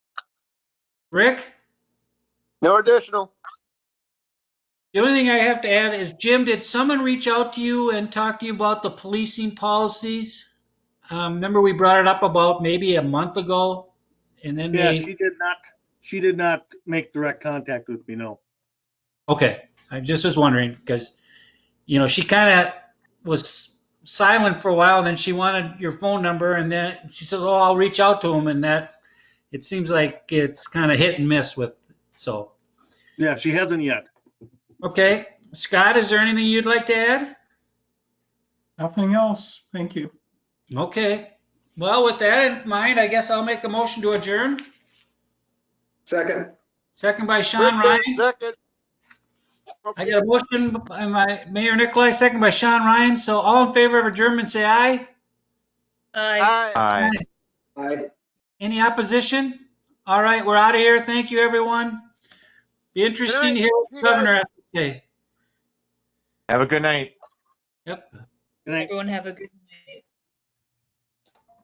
Rick, No additional. the only thing I have to add is, Jim, did someone reach out to you and talk to you about the policing policies? Um, remember we brought it up about maybe a month ago? And then Yeah, they, she did not, she did not make direct contact with me, no. okay, I just was wondering, because, you know, she kind of was silent for a while, and then she wanted your phone number, and then she said, oh, I'll reach out to him, and that, it seems like it's kind of hit and miss with, so. Yeah, she hasn't yet. Okay, Scott, is there anything you'd like to add? Nothing else. Thank you. Okay, well, with that in mind, I guess I'll make a motion to adjourn. Second. Second by Sean Ryan. Second. I got a motion by my Mayor Nicolai, second by Sean Ryan. So all in favor of adjournment, say aye. Aye. Aye. Aye. Aye. Any opposition? All right, we're out of here. Thank you, everyone. Be interesting to hear what the governor has to say. Have a good night. Everyone have a good night.